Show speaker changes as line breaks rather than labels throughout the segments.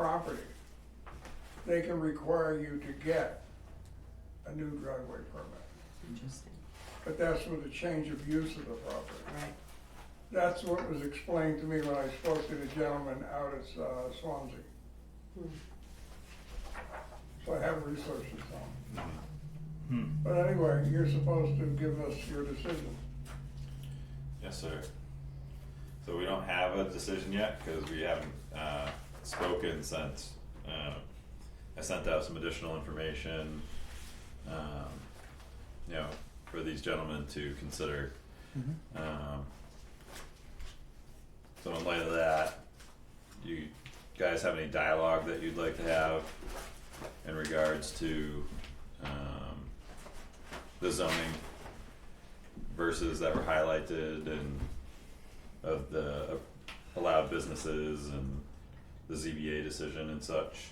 property, they can require you to get a new driveway permit.
Interesting,
But that's with a change of use of the property.
right,
That's what was explained to me when I spoke to the gentleman out at uh, Swansea.
Hmm.
So I have researched this on.
Hmm.
But anyway, you're supposed to give us your decision.
Yes, sir. So we don't have a decision yet, cause we haven't uh spoken since, uh, I sent out some additional information. Um, you know, for these gentlemen to consider,
Mhm.
um. So in light of that, you guys have any dialogue that you'd like to have in regards to, um, the zoning verses that were highlighted and of the allowed businesses and the ZBA decision and such.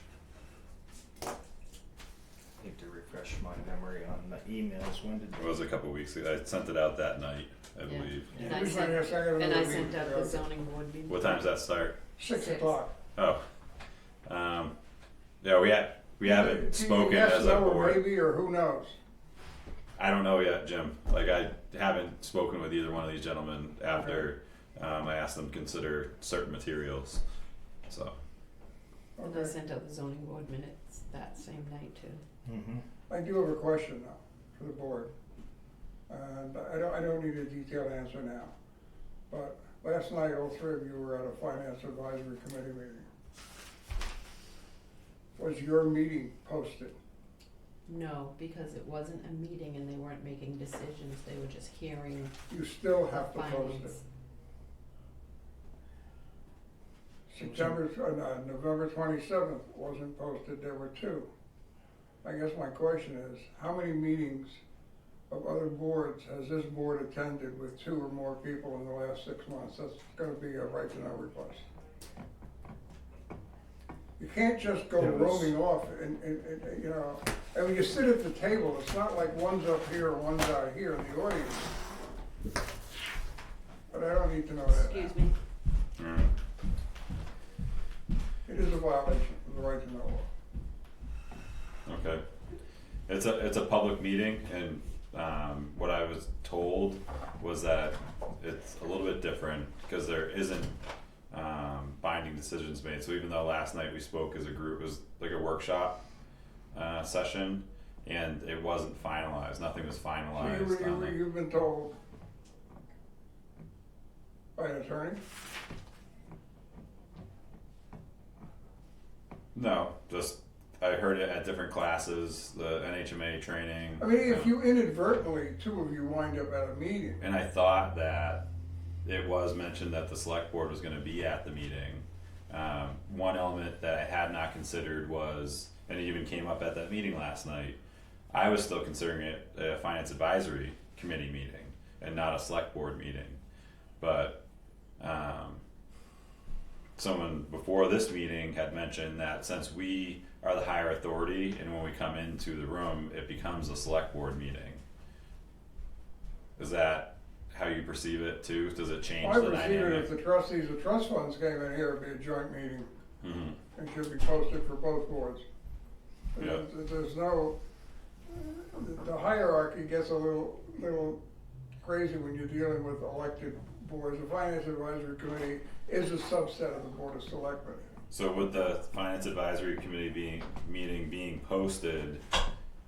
Need to refresh my memory on the emails, when did
It was a couple weeks ago. I sent it out that night, I
Yeah.
believe.
and I
Everybody has
sent,
to have
and I
another
sent
meeting.
out the zoning board meeting.
What time does that start?
Six
Six.
o'clock.
Oh. Um, yeah, we ha- we haven't spoken
Yes,
as a
no, or
board.
Maybe, or who knows?
I don't know yet, Jim. Like I haven't spoken with either one of these gentlemen after um, I asked them to consider certain materials. So
And I
Okay.
sent out the zoning board minutes that same night too.
Mm-hmm.
I do have a question now for the board. And I don't, I don't need a detailed answer now. But last night, all three of you were at a finance advisory committee meeting. Was your meeting posted?
No, because it wasn't a meeting and they weren't making decisions, they were just hearing
You still
the
have to post it.
findings.
September, uh, no, November twenty-seventh wasn't posted, there were two. I guess my question is, how many meetings of other boards has this board attended with two or more people in the last six months? That's gonna be a right to know request. You can't just go
There was-
roaming off and, and, and, you know, and when you sit at the table, it's not like one's up here and one's out here in the audience. But I don't need to know that.
Excuse me,
mm,
It is a violation of the right to know law.
okay, it's a it's a public meeting, and um, what I was told was that it's a little bit different because there isn't um, binding decisions made. So even though last night we spoke as a group, it was like a workshop uh, session, and it wasn't finalized. Nothing was
So you
finalized.
were- you,
on
were-
it.
you've been told by an attorney?
No, just I heard it at different classes, the NHMA training.
I mean, if
um,
you inadvertently, two of you wind up at a meeting,
And I thought that it was mentioned that the select board was gonna be at the meeting. Um, one element that I had not considered was, and it even came up at that meeting last night, I was still considering it a finance advisory committee meeting and not a select board meeting. But, um, someone before this meeting had mentioned that since we are the higher authority and when we come into the room, it becomes a select board meeting. Is that how you perceive it too? Does it change
I
the
would see it if
dynamic?
the trustees of trust funds came in here, it'd be a joint meeting
Mhm.
and should be posted for both boards. But
Yeah.
there- There's no, the- the hierarchy gets a little, little crazy when you're dealing with elected boards. The finance advisory committee is a subset of the board of selectmen.
So with the finance advisory committee being, meeting being posted,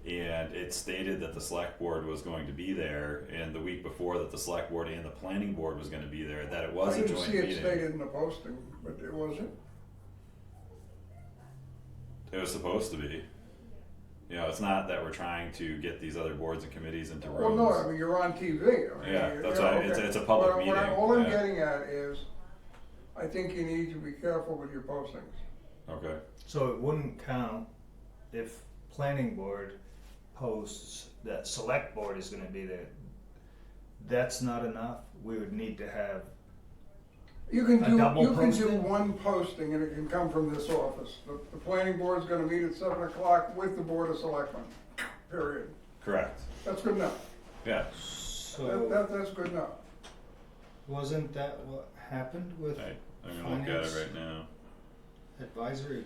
and it stated that the select board was going to be there, and the week before that the select board and the planning board was gonna be there, that it was a joint
I didn't see it
meeting.
stated in the posting, but it wasn't.
It was supposed to be. You know, it's not that we're trying to get these other boards and committees into
Well, no, I
rooms.
mean, you're on TV. I mean,
Yeah,
you
that's
know,
why it's-
okay.
it's a public
What I'm- what I'm-
meeting,
All I'm
yeah.
getting at is, I think you need to be careful with your postings.
Okay,
So it wouldn't count if planning board posts that select board is gonna be there. That's not enough, we would need to have,
You can
A
do,
double
you can do
posting?
one posting and it can come from this office. The, the planning board's gonna meet at seven o'clock with the board of selectmen, period.
correct,
That's good enough.
yeah,
That,
so
that, that's good enough.
wasn't that what happened with
I, I'm gonna look at
Finance.
it right now.
advisory